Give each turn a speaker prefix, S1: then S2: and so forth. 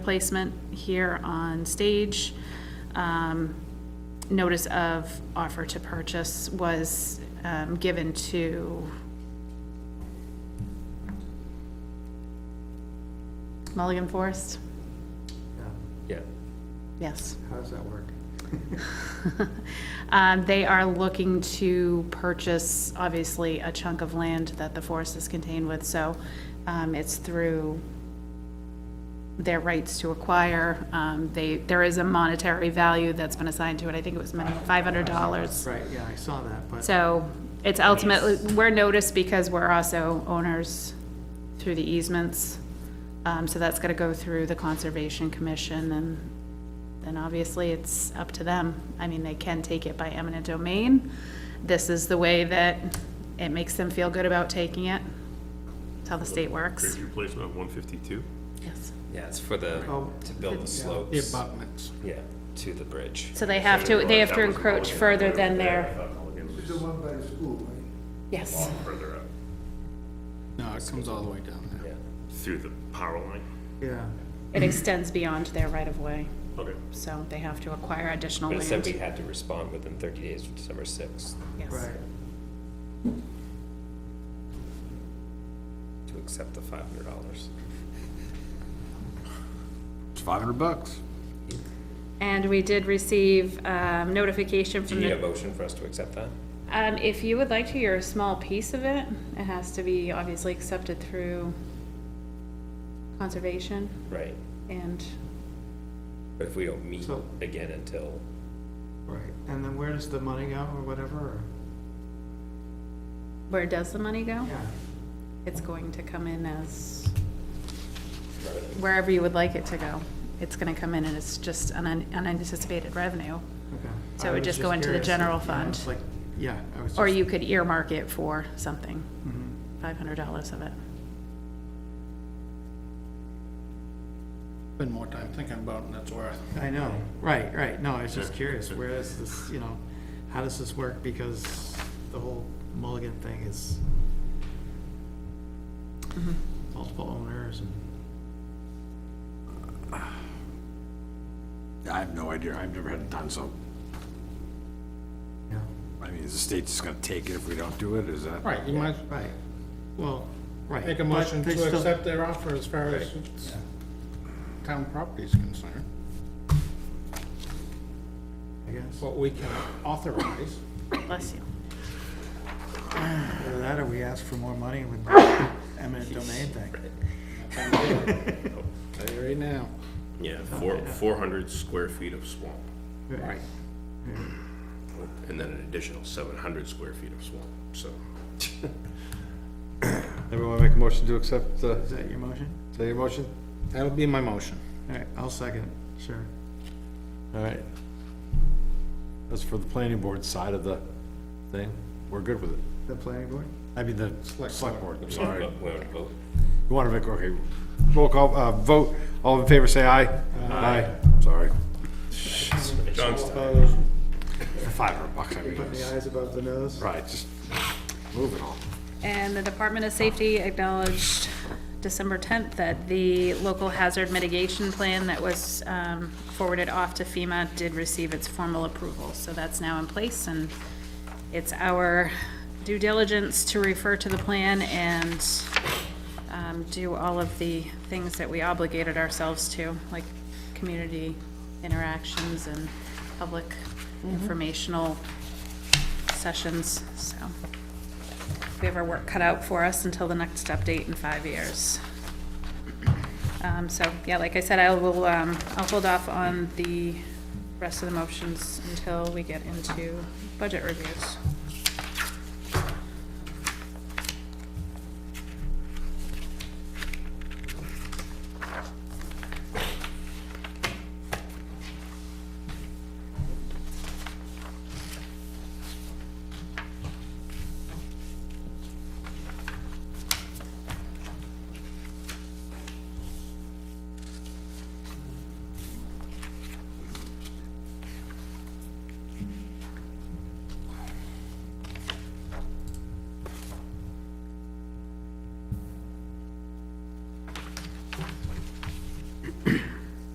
S1: placement here on stage. Um, Notice of offer to purchase was um, given to Mulligan Forest?
S2: Yeah,
S1: Yes.
S3: How does that work?
S1: Um, They are looking to purchase, obviously, a chunk of land that the forest is contained with, so um, it's through their rights to acquire. Um, They, there is a monetary value that's been assigned to it, I think it was money, $500.
S3: Right, yeah, I saw that, but,
S1: So it's ultimately, we're noticed because we're also owners through the easements. Um, so that's gotta go through the Conservation Commission and then obviously it's up to them. I mean, they can take it by eminent domain. This is the way that it makes them feel good about taking it. It's how the state works.
S4: Grade replacement of one fifty-two?
S1: Yes.
S2: yeah, it's for the,
S3: Oh.
S2: to build the
S3: the
S2: slopes,
S3: abutments.
S2: yeah, to the bridge.
S1: So they have to, they have to encroach further than their,
S5: The one by the school, right?
S1: yes.
S4: Further up,
S3: No, it comes all the way down there.
S2: Yeah.
S4: through the power line.
S3: Yeah,
S1: It extends beyond their right of way,
S4: Okay.
S1: so they have to acquire additional
S2: But it
S1: land.
S2: said we had to respond within thirty days of December sixth
S1: Yes.
S3: right.
S2: to accept the five hundred dollars.
S6: It's five hundred bucks.
S1: And we did receive um, notification
S2: Do
S1: from
S2: you need a
S1: the,
S2: motion for us to accept that?
S1: um, if you would like to, you're a small piece of it. It has to be obviously accepted through conservation
S2: Right,
S1: and
S2: but if we don't meet
S3: So-
S2: again until,
S3: Right, and then where does the money go or whatever? or-
S1: where does the money go?
S3: Yeah,
S1: It's going to come in as wherever you would like it to go. It's gonna come in and it's just an un- unanticipated revenue.
S3: okay.
S1: So it
S3: I
S1: would
S3: was
S1: just go into the
S3: curious,
S1: general
S3: you know,
S1: fund.
S3: it's like- Yeah, I was
S1: Or
S3: just-
S1: you could earmark it for something,
S3: Mhm.
S1: five hundred dollars of it.
S6: Spend more time thinking about it than it's worth.
S3: I know, right, right, no, I was just curious, where is this, you know, how does this work? Because the whole Mulligan thing is
S1: Mm-hmm.
S3: multiple owners and,
S6: I have no idea. I've never had it done, so,
S3: yeah,
S6: I mean, is the state just gonna take it if we don't do it? Is that?
S7: Right, you might
S3: right, well, right.
S7: make a
S3: but
S7: motion
S3: they
S7: to
S3: still-
S7: accept their offer as far as town property is concerned,
S3: I guess,
S7: what we can authorize.
S1: Bless you.
S3: either that or we ask for more money with the eminent domain thing.
S7: Tell you right now,
S4: Yeah, four, four hundred square feet of swamp,
S3: Right.
S4: and then an additional seven hundred square feet of swamp, so.
S8: Everyone make a motion to accept, uh,
S3: Is that your motion?
S8: is that your motion?
S7: that'll be my motion.
S3: All right, I'll second, sure.
S8: All right. That's for the planning board side of the thing. We're good with it.
S3: The planning board?
S8: I mean, the select board, I'm sorry.
S2: we don't vote.
S8: You want to make, okay, roll call, uh, vote. All in favor, say aye. Aye. Sorry.
S4: John's,
S7: Opposed?
S8: Five hundred bucks, I mean,
S3: Putting the
S8: it's-
S3: eyes above the nose?
S8: right, just move it on.
S1: And the Department of Safety acknowledged December 10th that the local hazard mitigation plan that was um, forwarded off to FEMA did receive its formal approval. So that's now in place, and it's our due diligence to refer to the plan and um, do all of the things that we obligated ourselves to, like community interactions and public informational sessions, so we have our work cut out for us until the next update in five years. Um, so, yeah, like I said, I will, um, I'll hold off on the rest of the motions until we get into budget reviews.